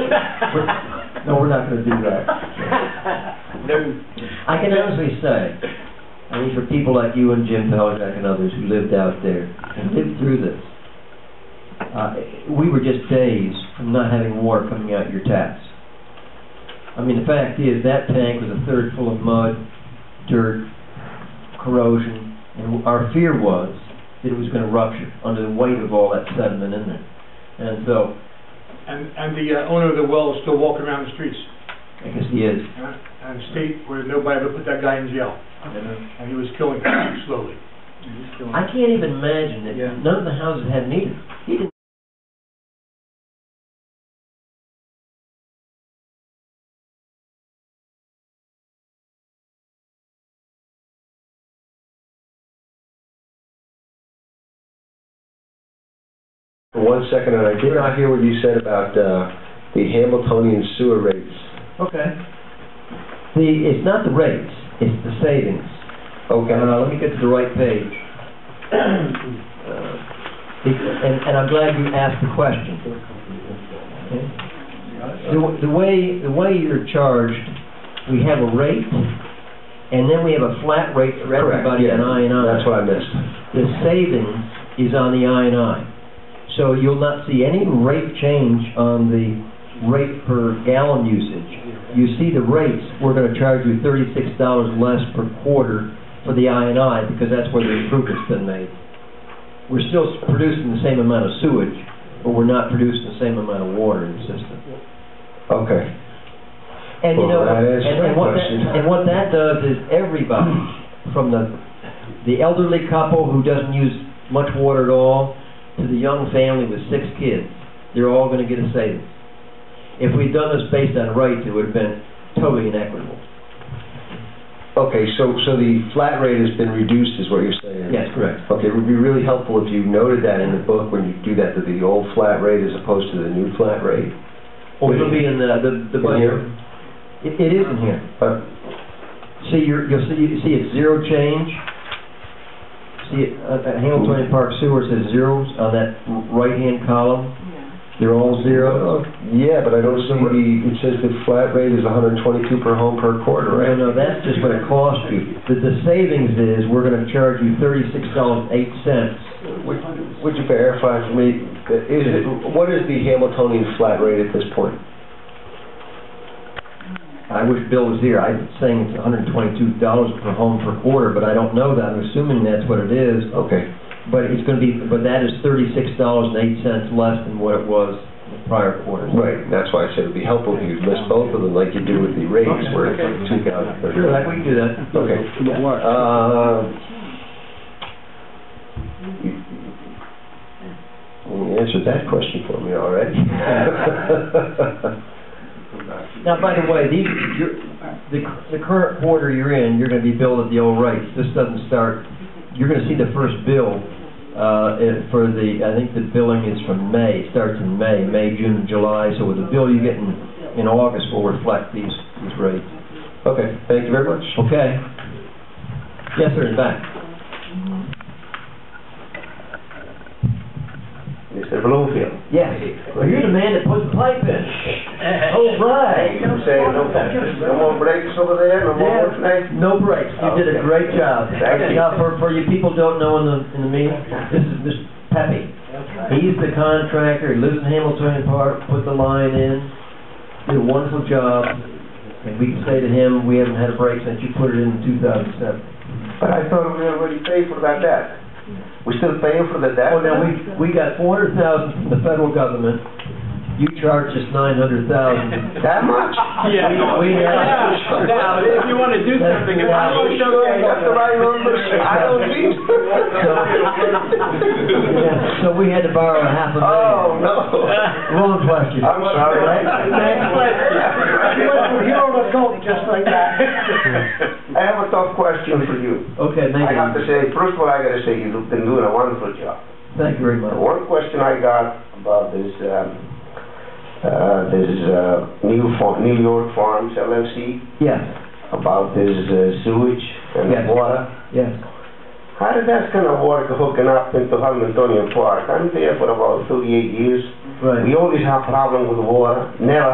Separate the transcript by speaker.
Speaker 1: We're- No, we're not gonna do that.
Speaker 2: No.
Speaker 1: I can honestly say, I mean, for people like you and Jim Pelchak and others who lived out there and lived through this, uh, we were just days from not having water coming out your taps. I mean, the fact is, that tank was a third full of mud, dirt, corrosion, and our fear was that it was gonna rupture under the weight of all that sediment in there. And so,
Speaker 2: And, and the uh, owner of the well is still walking around the streets,
Speaker 1: I guess he is,
Speaker 2: uh, and state where nobody ever put that guy in jail,
Speaker 1: you know,
Speaker 2: and he was killing people slowly. He was killing
Speaker 1: I can't even imagine that
Speaker 2: Yeah.
Speaker 1: none of the houses had meters. He didn't.
Speaker 3: For one second, and I did not hear what you said about uh, the Hamiltonian sewer rates.
Speaker 1: Okay. The, it's not the rates, it's the savings.
Speaker 3: Okay.
Speaker 1: Uh, let me get to the right page. Uh, the- And, and I'm glad you asked the question. Okay? The, w- the way, the way you're charged, we have a rate, and then we have a flat rate for
Speaker 3: Correct,
Speaker 1: everybody in
Speaker 3: yeah.
Speaker 1: I and I.
Speaker 3: That's what I missed.
Speaker 1: The savings is on the I and I. So you'll not see any rate change on the rate per gallon usage. You see the rates, we're gonna charge you thirty-six dollars less per quarter for the I and I, because that's where the improvement's been made. We're still s- producing the same amount of sewage, but we're not producing the same amount of water in the system.
Speaker 3: Okay.
Speaker 1: And you know,
Speaker 3: Well, that
Speaker 1: and
Speaker 3: answers my
Speaker 1: and what that,
Speaker 3: question.
Speaker 1: and what that does is everybody, from the, the elderly couple who doesn't use much water at all, to the young family with six kids, they're all gonna get a savings. If we'd done this based on rates, it would've been totally inequitable.
Speaker 3: Okay, so, so the flat rate has been reduced, is what you're saying?
Speaker 1: Yes, correct.
Speaker 3: Okay, it would be really helpful if you noted that in the book when you do that, that the old flat rate as opposed to the new flat rate.
Speaker 1: Or Oh, it'll be in the, the, the
Speaker 3: In here?
Speaker 1: budget. It, it is in here.
Speaker 3: Uh,
Speaker 1: See, you're, you'll see, you see it's zero change. See, it, uh, uh, Hamiltonian Park Sewer says zeros on that r- right-hand column. They're all zeros.
Speaker 3: oh, Yeah, but I don't see the, it says the flat rate is 122 per home per quarter,
Speaker 1: No,
Speaker 3: right?
Speaker 1: no, that's just what it costs you. The, the savings is, we're gonna charge you thirty-six dollars and eight cents.
Speaker 3: Would would you verify for me, that- is it, what is the Hamiltonian flat rate at this point?
Speaker 1: I wish Bill was here, I'm saying it's hundred and twenty-two dollars per home per quarter, but I don't know that, I'm assuming that's what it is.
Speaker 3: Okay.
Speaker 1: But it's gonna be, but that is thirty-six dollars and eight cents less than what it was the prior quarter.
Speaker 3: Right, and that's why I said it'd be helpful if you list both of them like you do with the rates where it's like two thousand thirty.
Speaker 1: Sure, I- we can do that.
Speaker 3: Okay. Uh, You answered that question for me already.
Speaker 1: Now, by the way, these, you're, the, the current quarter you're in, you're gonna be billed at the old rates. This doesn't start, you're gonna see the first bill, uh, eh, for the, I think the billing is from May, starts in May, May, June, July. So with the bill you get in, in August will reflect these, these rates.
Speaker 3: Okay, thank you very much.
Speaker 1: Okay? Yes, sir, in fact.
Speaker 3: Mr. Bloomfield.
Speaker 1: Yes. Well, you're the man that put the pipe in. All right.
Speaker 3: Say, no, no more breaks over there, no more work tonight?
Speaker 1: Yeah, no breaks. You did a great job.
Speaker 3: Thank you.
Speaker 1: Now, for, for you people don't know in the, in the meeting, this is Mr. Pepe. He's the contractor, he lives in Hamiltonian Park, put the line in, did a wonderful job. And we can say to him, we haven't had a break since you put it in two thousand seven.
Speaker 3: But I thought we already paid for that debt. We still paying for the debt?
Speaker 1: Well, Oh, now, we, we got four hundred thousand from the federal government. You charged us nine hundred thousand.
Speaker 3: That much?
Speaker 2: Yeah.
Speaker 1: We- we-
Speaker 2: Yeah. Now, if you want to do something
Speaker 3: I
Speaker 2: about
Speaker 3: Oh,
Speaker 2: it.
Speaker 3: don't know if that's the right number. I don't think so.
Speaker 1: Yeah, So we had to borrow a half a
Speaker 3: Oh,
Speaker 1: million.
Speaker 3: no.
Speaker 1: Wrong question.
Speaker 3: I'm sorry.
Speaker 2: Next question. You don't adult just like that.
Speaker 3: I have a tough question for you.
Speaker 1: Okay, make
Speaker 3: I have
Speaker 1: it,
Speaker 3: to say, first of all, I gotta say, you've been doing a wonderful job.
Speaker 1: thank you very
Speaker 3: The
Speaker 1: much.
Speaker 3: One question I got about this, um, uh, this, uh, new fa- New York Farms LLC,
Speaker 1: Yes,
Speaker 3: about this uh, sewage and
Speaker 1: Yes.
Speaker 3: water.
Speaker 1: yes.
Speaker 3: How did that kind of work hooking up into San Antonio Park? I'm there for about thirty-eight years.
Speaker 1: Right.
Speaker 3: We always have problem with water, never